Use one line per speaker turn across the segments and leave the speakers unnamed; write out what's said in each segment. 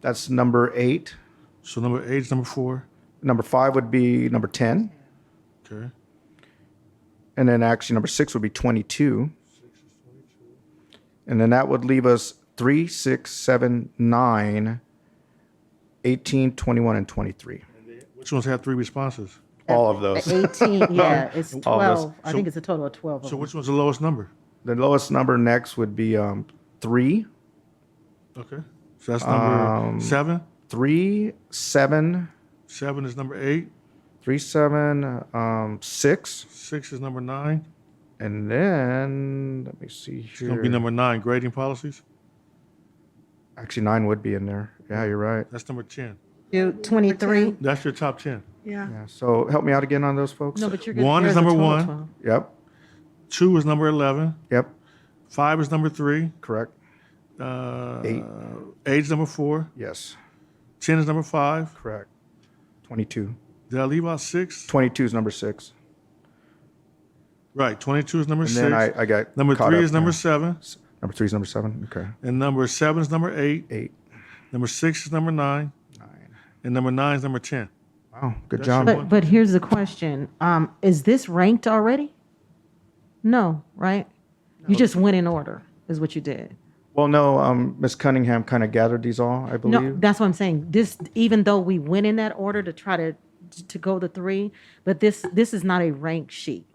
That's number eight.
So number eight is number four.
Number five would be number 10.
Okay.
And then actually, number six would be 22. And then that would leave us 3, 6, 7, 9, 18, 21, and 23.
Which ones have three responses?
All of
The
those.
18, yeah, it's
All those.
12. I think it's a total of 12 of
So
them.
which one's the lowest number?
The lowest number next would be um, 3,
Okay. So that's number
Um,
seven.
3, 7,
Seven is number eight.
3, 7, um, 6.
Six is number nine.
And then, let me see
It's going to be
here.
number nine, grading policies.
Actually, 9 would be in there. Yeah, you're right.
That's number 10.
Do 23?
That's your top 10.
Yeah.
Yeah, so help me out again on those folks.
No, but you're good.
One
There
is
a
number
total of
one.
12.
Yep,
Two is number 11.
yep,
Five is number three.
correct.
Uh,
Eight.
Eight is number four.
Yes,
10 is number five.
correct. 22.
Did I leave out six?
22 is number six.
Right. 22 is number
And
six.
then I, I got
number
caught
three
up
is number
there.
seven.
Number three is number seven. Okay.
And number seven is number eight.
Eight.
Number six is number nine.
Nine.
And number nine is number 10.
Wow. Good
That's
job.
your-
But, but here's the question. Um, Is this ranked already? No, right? You just went in order, is what you did.
Well, no, um, Miss Cunningham kind of gathered these all, I
No,
believe.
that's what I'm saying. This, even though we went in that order to try to, to go the three, but this, this is not a rank sheet.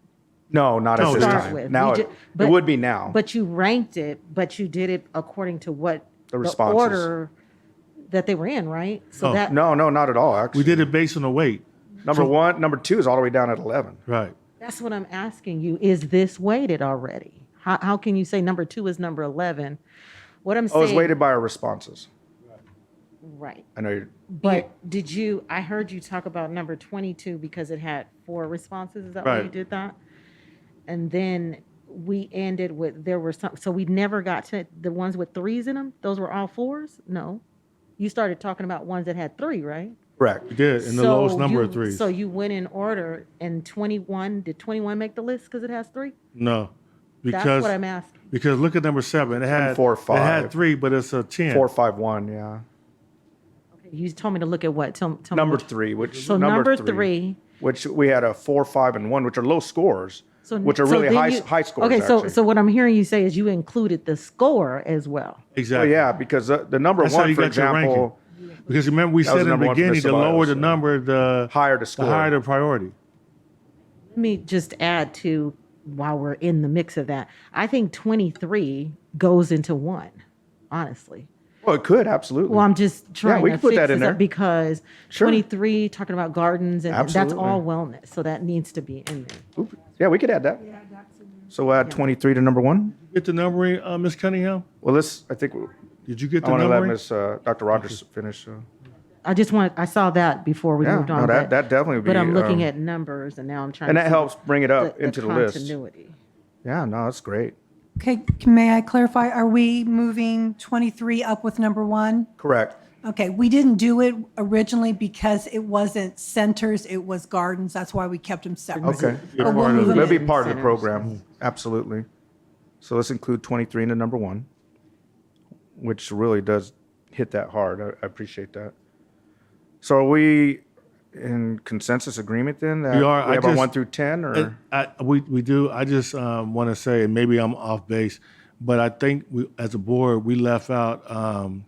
No, not at
No,
this
it's
start
not.
with.
time. Now,
You
it
ju-
it
but-
would be now.
But you ranked it, but you did it according to what
The responses.
order that they were in, right? So
Oh,
that
No, no, not at all,
We
actually.
did it based on the weight.
Number one, number two is all the way down at 11.
Right.
that's what I'm asking you. Is this weighted already? How how can you say number two is number eleven? What I'm
Oh, it's
saying,
weighted by our responses.
right?
I know you're,
But did you? I heard you talk about number twenty-two because it had four responses. Is that why you
Right.
did that? And then we ended with there were some. So we never got to the ones with threes in them. Those were all fours. No, you started talking about ones that had three, right?
correct.
We did. And the lowest
So
number
you-
of threes.
So you went in order, and twenty-one. Did twenty-one make the list because it has three?
no. Because
That's what I'm asking.
Because look at number seven. It had
four,
It
five.
had three, but it's a ten.
Four, five, one, yeah.
You told me to look at what. Tell, tell
Number
me. which-
three, which.
So number three.
Which we had a four, five, and one, which are low scores,
So
which are
so
really
then
high,
you-
high scores,
Okay, so
actually.
so what I'm hearing you say is you included the score as well.
Well,
Exactly.
oh, yeah, because uh, the, the number
That's how
one,
you
for
got your ranking.
example,
Because remember we
was
said in the
number one for
beginning,
Mr.
the lower
Biles,
the
yeah.
number, the
higher to
the
score.
higher the priority.
Let me just add to while we're in the mix of that. I think twenty-three goes into one. Honestly.
Well, Oh, it could absolutely.
Well, I'm just trying
we
to
can put
fix
that in
this up
there.
because
Sure.
23 talking about gardens and
Absolutely.
that's all wellness, so that needs to be in there.
Oop. yeah, we could add that. So we'll add 23 to number one.
Get the numbering, uh, Ms. Cunningham?
Well, let's. I think we-
Did you get
I
the
want to let
numbering?
Miss uh, Dr. Rogers finish. So.
I just want I saw that before we
Yeah,
moved
no,
on.
that-
but,
that definitely would
But
be,
I'm looking
um,
at numbers, and now I'm trying.
And
to
that
see
helps bring it up into the, list.
continuity.
Yeah, no, that's great.
Okay, c- may I clarify? Are we moving 23 up with number one?
Correct.
Okay, we didn't do it originally because it wasn't centers, it was gardens. That's why we kept them separate.
Okay.
You're
But we'll
part of
move
it.
them
It'll be
in.
part of the
centers.
program. Absolutely. So let's include 23 into number one, which really does hit that hard. I, I appreciate that. So are we in consensus agreement then? That
We are. I
have our
just-
one through 10 or?
Uh, I, I- we, we do. I just um, want to say, and maybe I'm off base, but I think we, as a board, we left out um,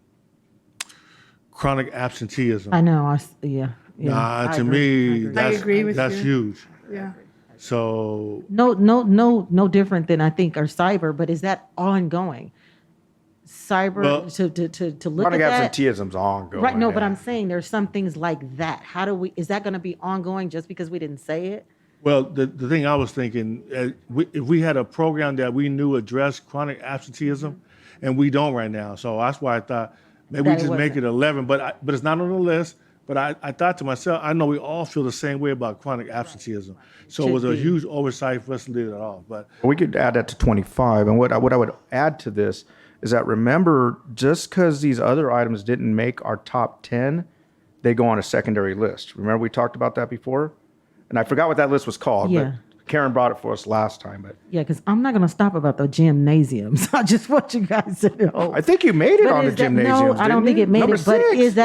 chronic absenteeism.
I know. I s- yeah. yeah
Uh,
I
to
agree, I
me,
agree.
that's,
agree with
that's
you.
huge.
Yeah.
So
no, no, no, no different than I think our cyber, but is that ongoing? Cyber
Well-
to, to to to look
Chronic
at that.
absenteeism's ongoing.
Right. No, but
yeah.
I'm saying there's some things like that. How do we? Is that going to be ongoing just because we didn't say it?
Well, the, the thing I was thinking, uh, we, if we had a program that we knew addressed chronic absenteeism, and we don't right now, so that's why I thought maybe
Mm-hmm. That
we
it
just make it
wasn't.
eleven. But I, but it's not on the list. But I, I thought to myself, I know we all feel the same way about chronic absenteeism, so it
Should
was a
be.
huge oversight for us to leave it off. But
We could add that to 25. And what I, what I would add to this is that remember, just because these other items didn't make our top 10, they go on a secondary list. Remember, we talked about that before? And I forgot what that list was called,
Yeah.
but Karen brought it for us last time, but
Yeah, because I'm not going to stop about the gymnasiums. I just want you guys to know.
I think you made it
But
on the
is that-
gymnasium.
No, I don't think it made it. But is that